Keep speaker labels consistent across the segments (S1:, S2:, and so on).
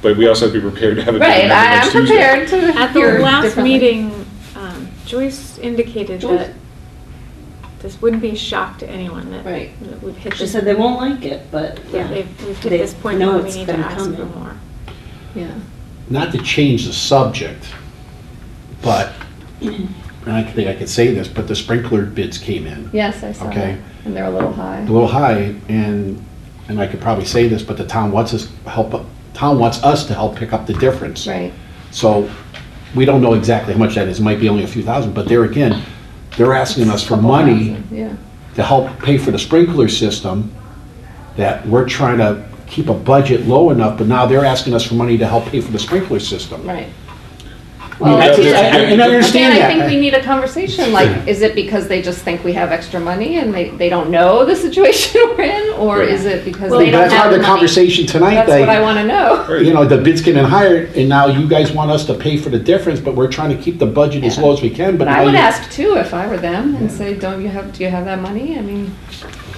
S1: But we also have to be prepared to have a meeting
S2: Right, I
S1: next
S2: am
S1: Tuesday.
S2: prepared to hear
S3: At the last
S2: differently.
S3: meeting, um, Joyce indicated
S2: Joyce?
S3: that this wouldn't be a shock to anyone that
S2: Right.
S3: that we've hit
S4: She
S3: this,
S4: said they won't like it, but.
S3: yeah,
S5: uh,
S3: they've- we've hit
S4: They
S3: this point
S4: know
S3: where we
S4: it's
S3: need to
S4: been
S3: ask for
S4: coming.
S3: more.
S2: Yeah.
S6: not to change the subject, but, and I think I could say this, but the sprinkler bids came in
S2: Yes, I saw
S6: Okay.
S2: that. And they're a little high.
S6: a little high, and, and I could probably say this, but the town wants us help, town wants us to help pick up the difference.
S2: Right.
S6: So, we don't know exactly how much that is, might be only a few thousand, but there again, they're asking us for
S2: Couple
S6: money
S2: thousand, Yeah.
S6: to help pay for the sprinkler system, that we're trying to keep a budget low enough, but now they're asking us for money to help pay for the sprinkler system.
S2: Right.
S6: Well,
S1: that's-
S2: again,
S1: I- I- and I
S6: understand
S2: Again, I
S6: that.
S2: think we need a conversation, like, is it because they just think we have extra money and they, they don't know the situation we're in? Or
S1: Right.
S2: is it because
S6: Well,
S2: they don't have
S6: That's
S2: the
S6: how
S2: money?
S6: the conversation tonight,
S2: That's what I
S6: they,
S2: wanna know.
S6: you know, the bids came in higher, and now you guys want us to pay for the difference, but we're trying to keep the budget as
S2: Yeah.
S6: low as we can, but
S2: But
S6: now
S2: I would
S6: you-
S2: ask too if I were them and say, don't you have, do you have that money? I mean,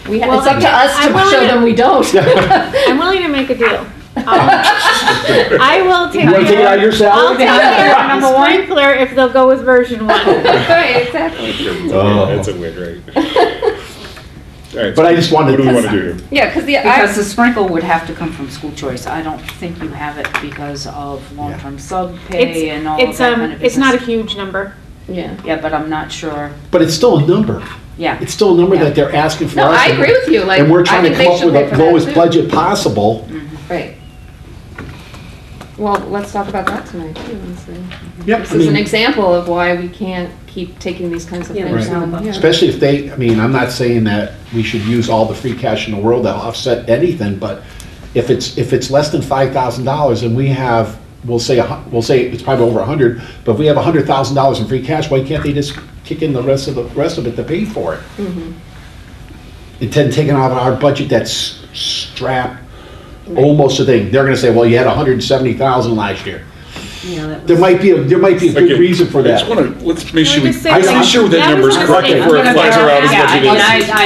S2: we, ha-
S3: Well,
S2: it's up to
S3: I-
S2: us
S3: I
S2: to
S3: wanna-
S2: show them we don't.
S3: I'm willing to make a deal. Um, I will take
S6: You wanna take it out
S3: care,
S6: of
S3: I'll
S6: your salary?
S3: take care of number one sprinkler if they'll go with version one.
S2: Right, exactly.
S6: Oh.
S1: That's a win, right? All right,
S6: But I just wanted
S1: What do we
S6: to-
S1: want to do?
S2: Yeah, cause the,
S5: Because
S2: I,
S5: the sprinkle would have to come from school choice. I don't think you have it because of long-term sub pay and all of
S3: It's,
S5: that
S3: um,
S5: kind of
S3: it's not a
S5: business.
S3: huge number.
S2: yeah.
S5: Yeah, but I'm not sure,
S6: But it's still a number,
S5: yeah.
S6: it's still a number
S5: Yeah.
S6: that they're asking for
S2: No,
S6: us.
S2: I
S6: and-
S2: agree with you, like.
S6: And we're
S2: I
S6: trying to
S2: think they
S6: come up
S2: should
S6: with
S2: pay for
S6: the
S2: that,
S6: lowest
S2: too.
S6: budget possible.
S2: Right. Well, let's talk about that tonight too and see.
S6: Yep,
S2: This
S6: I
S2: is an
S6: mean,
S2: example of why we can't keep taking these kinds of
S4: Yeah,
S2: things
S6: Right.
S2: on. Yeah.
S6: especially if they, I mean, I'm not saying that we should use all the free cash in the world to offset anything, but if it's, if it's less than five thousand dollars and we have, we'll say, a hu- we'll say it's probably over a hundred, but if we have a hundred thousand dollars in free cash, why can't they just kick in the rest of the, rest of it to pay for it? Instead of taking out of our budget that's strapped, almost a thing, they're gonna say, well, you had a hundred and seventy thousand last year.
S4: Yeah, that
S6: There
S4: was,
S6: might be, a there might be a
S1: Okay,
S6: good reason for
S1: I
S6: that.
S1: just want to, let's make
S3: Can
S1: sure,
S3: we
S1: we-
S3: just say,
S1: I'm
S3: like,
S1: sure that
S3: that
S1: number is
S3: was a
S1: correct
S3: mistake.
S1: before it
S3: I'm
S1: flies
S3: gonna-
S1: around as
S3: yeah,
S1: much
S3: I
S1: as
S3: mean,
S1: it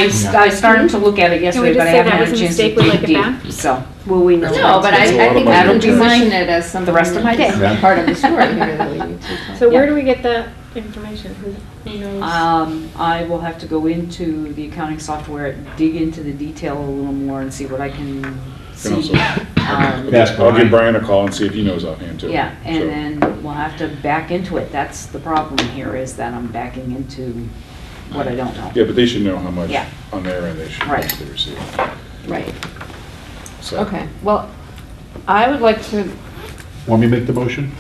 S1: is.
S5: And I, I, I started to look at it yesterday,
S3: just
S5: but I
S3: say
S5: haven't
S3: that
S5: had a
S3: was a
S5: chance to
S3: mistake, we
S5: dig
S3: like it
S5: deep,
S3: back?
S5: so.
S4: will we know?
S2: No, but I,
S1: That's a lot
S2: I
S1: of
S2: think we
S1: money.
S2: can
S1: That'll be
S2: position it as something.
S5: rest of my day.
S6: Yeah.
S2: Part of the story here that we need to.
S3: So
S2: Yeah.
S3: where do we get that information? Who who knows?
S5: Um, I will have to go into the accounting software, dig into the detail a little more and see what I can
S1: Can also-
S5: see. Um,
S6: That's
S1: I'll give
S6: fine.
S1: Brian a call and see if he knows offhand too.
S5: Yeah,
S1: So-
S5: and then we'll have to back into it. That's the problem here, is that I'm backing into what I don't know.
S1: Yeah, but they should know how much
S5: Yeah.
S1: on their end they should
S5: Right.
S1: they receive.
S2: Right,
S1: So,
S2: okay. Well, I would like to,
S6: Want me to make the motion?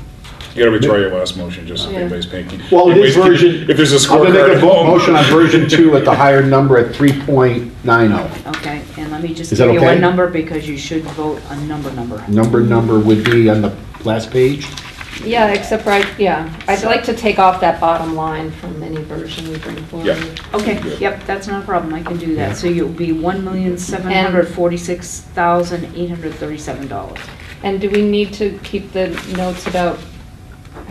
S1: You gotta withdraw your last motion, just so
S2: Yeah.
S1: anybody's paying.
S6: Well, it is
S1: Anybody's-
S6: version-
S1: If there's a
S6: I'm gonna
S1: scorecard at
S6: make a vo-
S1: home.
S6: motion on version two at the higher number at three point nine oh.
S5: Okay, and let me just
S6: Is that
S5: give you a
S6: okay?
S5: number because you should vote a number number.
S6: Number, number would be on the last page.
S2: yeah, except for, I- yeah, I'd like to take off that bottom line from any version we bring forward.
S5: Okay,
S1: Good.
S5: yep, that's not a problem. I can do that. So you'll be one million, seven hundred forty-six thousand, eight hundred thirty-seven dollars.
S2: And do we need to keep the notes about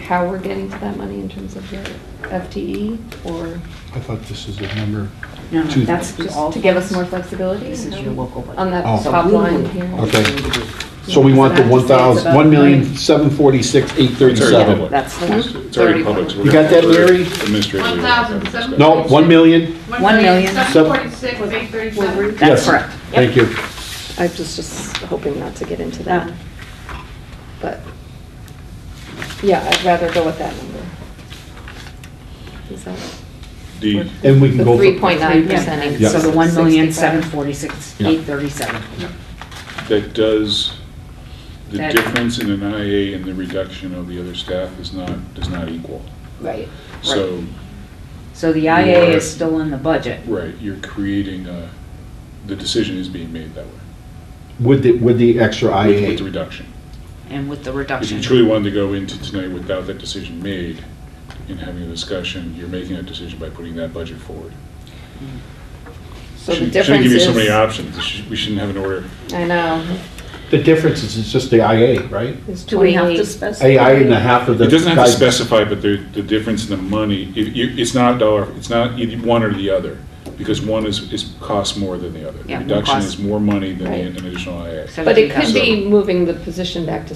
S2: how we're getting to that money in terms of the FTE? Or
S6: I thought this is the number.
S5: No, no,
S6: Two-
S5: that's all.
S2: just to give us more flexibility?
S5: This is
S2: No?
S5: your local budget.
S2: On that
S6: Oh.
S2: top line here.
S6: Okay. So we want the one thousand, one million, seven forty-six, eight thirty-seven.
S5: That's the one.
S1: It's already public. so we're
S6: You got
S1: gonna-
S6: that, Larry?
S1: Administratively.
S7: 1,700.
S6: No, one million,
S5: One million.
S7: Seven forty-six, eight thirty-seven.
S5: That's
S6: Yes.
S5: correct.
S6: thank you.
S2: I was just hoping not to get into
S5: that,
S2: that, Ah. but, yeah, I'd rather go with that number. Is that
S1: D,
S6: And we
S2: The
S6: can go. for-
S2: three point nine percent
S5: Yeah,
S2: increase.
S5: so the one million, seven
S2: 65.
S5: forty-six,
S6: Yeah.
S5: eight thirty-seven.
S1: that does, the
S5: That-
S1: difference in an IA and the reduction of the other staff is not, does not equal.
S5: Right.
S1: So,
S5: So the IA
S1: Right.
S5: is still in the budget.
S1: right, you're creating a, the decision is being made that way,
S6: With the, with the extra
S1: with- with the
S6: IA.
S1: reduction.
S5: And with the
S1: If you
S5: reduction.
S1: truly wanted to go into tonight without that decision made and having a discussion, you're making a decision by putting that budget forward.
S2: So the
S1: Shouldn't- Shouldn't
S2: difference
S1: give you so many
S2: is,
S1: options. It should- We shouldn't have an order.
S2: I know,
S6: The difference is it's just the IA, right?
S2: is
S4: Do we have to
S2: twenty-eight.
S4: specify?
S6: AI and a half of the.
S1: It doesn't have to
S6: guys-
S1: specify, but the, the difference in the money, it, you, it's not a dollar, it's not either one or the other. because one is, is, costs more than the other. The
S5: Yeah, one
S1: Reduction
S5: costs-
S1: is more money than
S2: Right.
S1: the- an additional IA.
S2: But it could
S1: So-
S2: be moving the position back to